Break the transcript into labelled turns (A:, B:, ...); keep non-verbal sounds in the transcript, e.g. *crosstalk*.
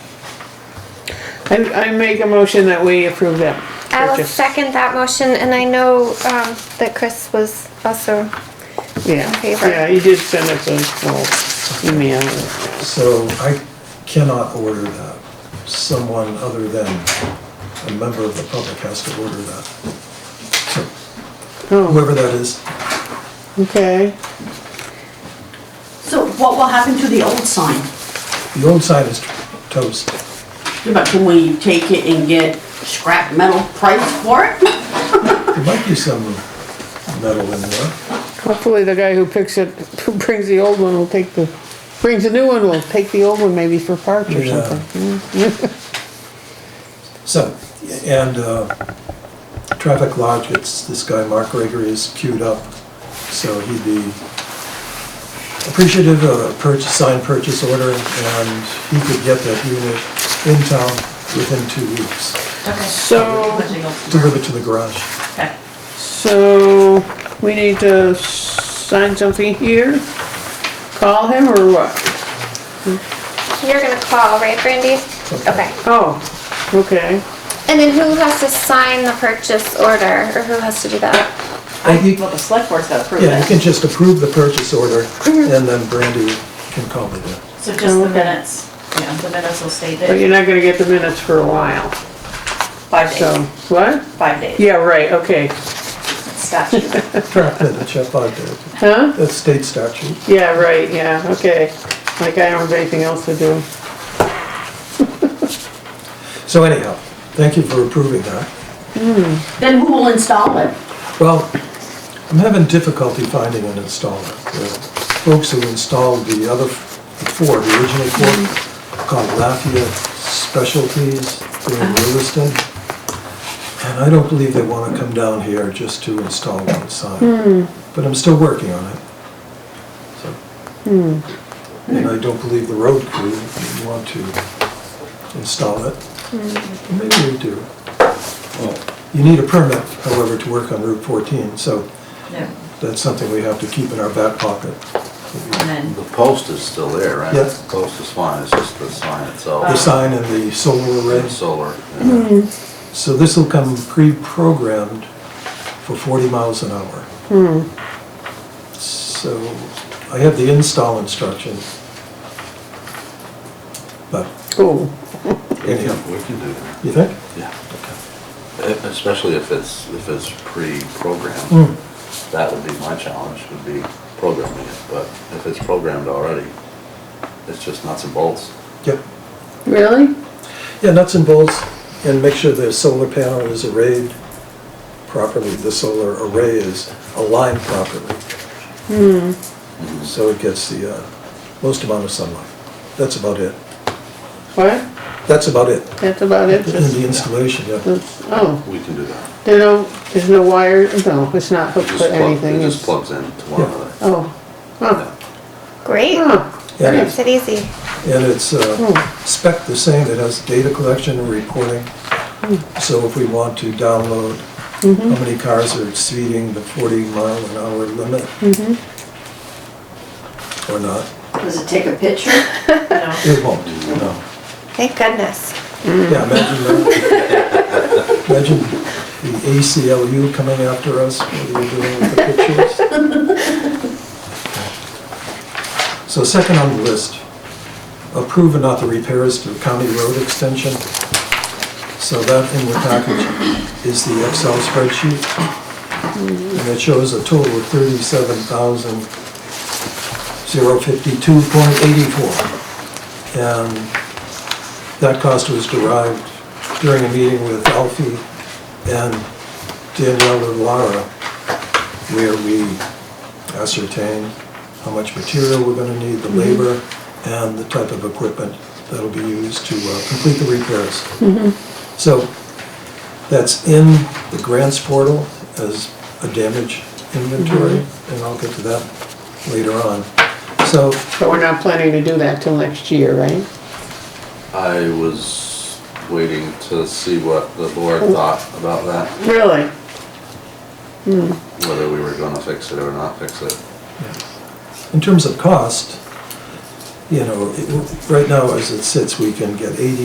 A: I, I make a motion that we approve that
B: I will
A: purchase.
B: second that motion, and I know um, that Chris was also,
A: Yeah,
B: favor.
A: yeah, he did send us a little email.
C: So I cannot order that. Someone other than a member of the public has to order that. So
A: Oh,
C: Whoever that is,
A: okay.
D: So what will happen to the old sign?
C: the old sign is toast.
D: But can we take it and get scrap metal price for it?
C: There might be some metal in there.
A: Hopefully the guy who picks it, *laughs* who brings the old one will take the, brings the new one, will take the old one maybe for parts or
C: Yeah.
A: something.
C: So, and uh, Traffic Lodge, it's, this guy Mark Gregory is queued up, so he'd be appreciative of a purchase, signed purchase order, and he could get that unit in town within two weeks,
A: So,
C: delivered to the garage.
A: so we need to sign something here? Call him or what?
B: you're gonna call, right, Brandy? Okay.
A: Oh, okay.
B: And then who has to sign the purchase order, or who has to do that?
C: I think-
E: Well, the select board's got to approve
C: Yeah, you
E: it.
C: can just approve the purchase order, and then Brandy can call me then.
E: So just the minutes, yeah, the minutes will stay
A: But
E: there,
A: you're not gonna get the minutes for a while,
E: five
A: so,
E: days,
A: what?
E: five days,
A: Yeah, right, okay.
E: statute.
C: Track that, check out there,
A: Huh?
C: that's state statute.
A: Yeah, right, yeah, okay. Like I don't have anything else to do.
C: So anyhow, thank you for approving that.
D: *laughs* Then who will install it?
C: Well, I'm having difficulty finding an installer. The folks who installed the other, the four, the original four, called Lafayette Specialties, they're in Lewiston. And I don't believe they want to come down here just to install one sign. But I'm still working on it. So, And I don't believe the road crew want to install it. Maybe we do. You need a permit, however, to work on Route 14, so
E: Yeah.
C: that's something we have to keep in our back pocket.
E: And then,
F: The post is still there, right?
C: Yep.
F: The post is fine, it's just the sign itself.
C: The sign and the solar
F: The
C: arrays.
F: Solar. yeah.
C: Mm-hmm. So this will come pre-programmed for 40 miles an hour. So I have the install instructions. But
A: Oh,
F: We can, we can do that,
C: you think?
F: yeah. E- Especially if it's, if it's pre-programmed.
C: Hmm.
F: That would be my challenge, would be programming it, but if it's programmed already, it's just nuts and bolts.
C: Yep.
A: really?
C: Yeah, nuts and bolts, and make sure the solar panel is arrayed properly, the solar array is aligned properly. So it gets the uh, most amount of sunlight. That's about it.
A: What?
C: That's about it.
A: That's about it?
C: In the installation, yeah.
A: Oh,
F: We can do that.
A: they don't, there's no wire, no, it's not
F: It
A: hooked
F: just
A: to
F: plug-
A: anything.
F: It just
A: it's-
F: plugs in to one
C: Yeah.
F: another.
A: Oh,
F: Yeah.
A: huh,
B: Great,
A: huh,
C: And
B: Hmm. makes
C: it's-
B: it easy.
C: and it's uh, spec the same, it has data collection and reporting. So if we want to download how many cars are exceeding the 40 mile an hour limit or not,
D: Does it take a picture?
E: you know,
C: it won't, no.
B: Thank goodness.
C: Yeah, imagine that. Imagine the ACLU coming after us, what are you doing with the pictures? So second on the list, approve and author repairs to county road extension. So that in your package is the Excel spreadsheet. And it shows a total of thirty-seven thousand zero fifty-two point eighty-four. And that cost was derived during a meeting with Alfie and Danielle and Laura, where we ascertained how much material we're gonna need, the labor, and the type of equipment that'll be used to uh, complete the repairs. So that's in the grants portal as a damage inventory, and I'll get to that later on. So
A: but we're not planning to do that till next year, right?
F: I was waiting to see what the board thought about that,
A: Really?
F: whether we were gonna fix it or not fix it.
C: In terms of cost, you know, it- right now as it sits, we can get eighty